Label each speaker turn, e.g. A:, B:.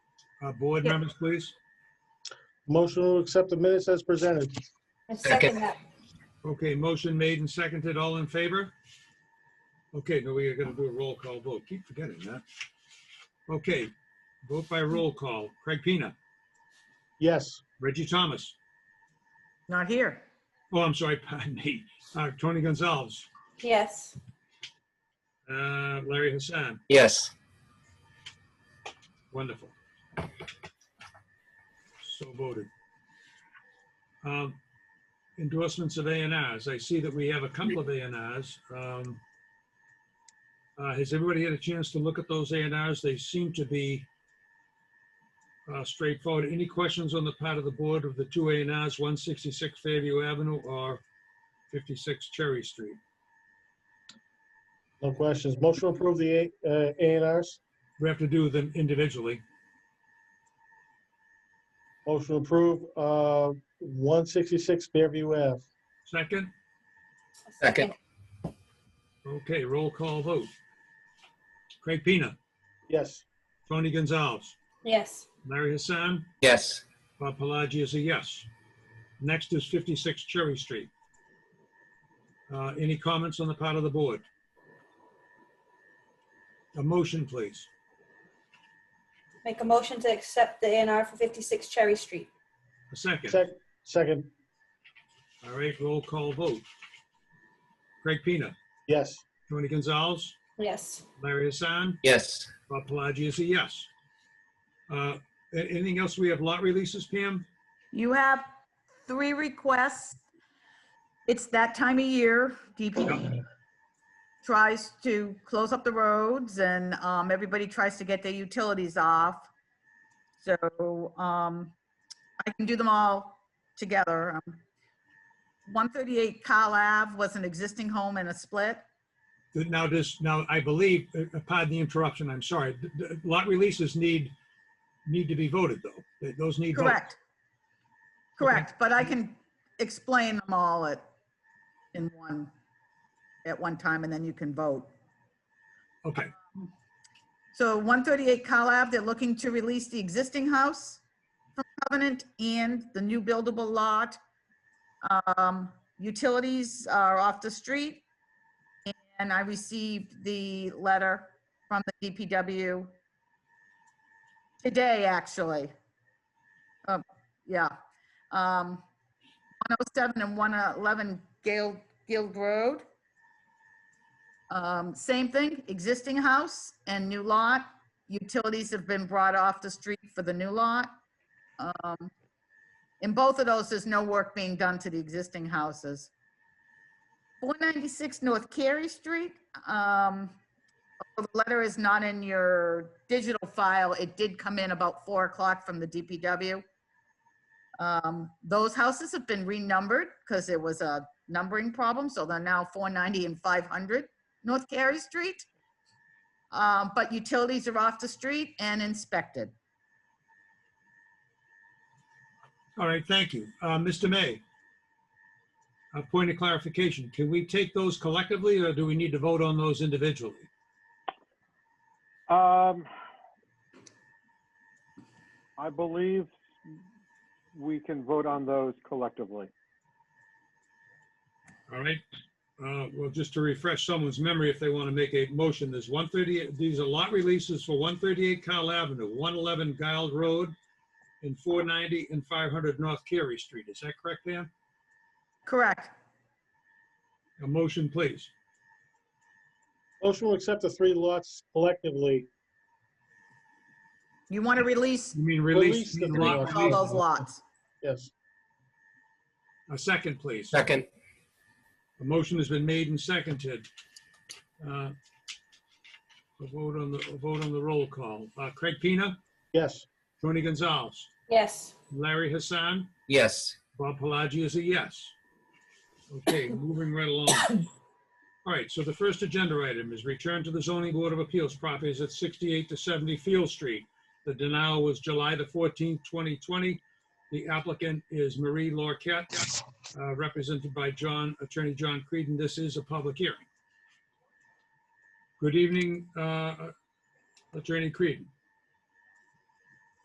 A: Uh, Board
B: Yeah.
A: members, please.
C: Motion to accept the minutes as presented.
B: I second that.
A: Okay, motion made and seconded. All in favor? Okay, now we are going to do a roll call vote. Keep forgetting that. Okay, vote by roll call. Craig Pina,
C: Yes.
A: Reggie Thomas.
D: Not here.
A: Oh, I'm sorry, pardon me. Uh, Tony Gonzalez,
B: Yes.
A: uh, Larry Hassan.
E: Yes.
A: Wonderful. So voted. Um, Endorsements of A and Rs. I see that we have a couple of A and Rs. Um, uh, Has everybody had a chance to look at those A and Rs? They seem to be uh, straightforward. Any questions on the part of the board of the two A and Rs, 166 Fairview Avenue or 56 Cherry Street?
C: No questions. Motion to approve the A uh, A and Rs.
A: We have to do them individually.
C: Motion to approve uh, 166 Fairview Ave.
A: Second?
B: I
E: Second.
A: Okay, roll call vote. Craig Peanut.
C: Yes.
A: Tony Gonzalez,
B: Yes.
A: Larry Hassan,
E: Yes.
A: Bob Pelagi is a yes. Next is 56 Cherry Street. Uh, Any comments on the part of the board? A motion, please.
B: Make a motion to accept the A and R for 56 Cherry Street.
A: A second.
C: Sec- Second.
A: All right, roll call vote. Craig Peanut,
C: Yes.
A: Tony Gonzalez,
B: Yes.
A: Larry Hassan,
E: Yes.
A: Bob Pelagi is a yes. Uh, a- Anything else? We have lot releases, Pam?
D: You have three requests. It's that time of year, DPD tries to close up the roads and um, everybody tries to get their utilities off. So um, I can do them all together. Um, 138 Kyle Ave was an existing home and a split.
A: Now, this, now, I believe, uh, pardon the interruption, I'm sorry, th- th- lot releases need, need to be voted, though. Th- Those need votes.
D: Correct. Correct, but I can explain them all at, in one, at one time, and then you can vote.
A: Okay,
D: So 138 Collab, they're looking to release the existing house from covenant and the new buildable lot. Um, Utilities are off the street. And I received the letter from the DPW today, actually. Um, Yeah. Um, 107 and 111 Gale, Guild Road. Um, Same thing, existing house and new lot. Utilities have been brought off the street for the new lot. Um, In both of those, there's no work being done to the existing houses. 496 North Carey Street. um, although The letter is not in your digital file. It did come in about 4 o'clock from the DPW. Um, Those houses have been renumbered because there was a numbering problem, so they're now 490 and 500 North Carey Street. Um, But utilities are off the street and inspected.
A: all right, thank you. Uh, Mr. May, a point of clarification, can we take those collectively, or do we need to vote on those individually?
F: Um, I believe we can vote on those collectively.
A: All right, Uh, well, just to refresh someone's memory, if they want to make a motion, there's 138, these are lot releases for 138 Kyle Avenue, 111 Guild Road, and 490 and 500 North Carey Street. Is that correct, Pam?
D: Correct.
A: A motion, please.
C: Motion to accept the three lots collectively.
D: You want to release
A: You mean
C: Release
A: release?
C: the
A: the
C: three
A: lot
C: lots.
D: all
A: release.
D: those lots.
C: Yes.
A: A second, please. A
E: Second.
A: motion has been made and seconded. Uh, A vote on the, a vote on the roll call. Uh, Craig Pina,
C: Yes.
A: Tony Gonzalez,
B: Yes.
A: Larry Hassan,
E: Yes.
A: Bob Pelagi is a yes. Okay, moving right along. All right, so the first agenda item is return to the zoning board of appeals properties at 68 to 70 Field Street. The denial was July the 14th, 2020. The applicant is Marie Lorquette, uh, represented by John, Attorney John Creedon. This is a public hearing. Good evening, uh, Attorney Creedon.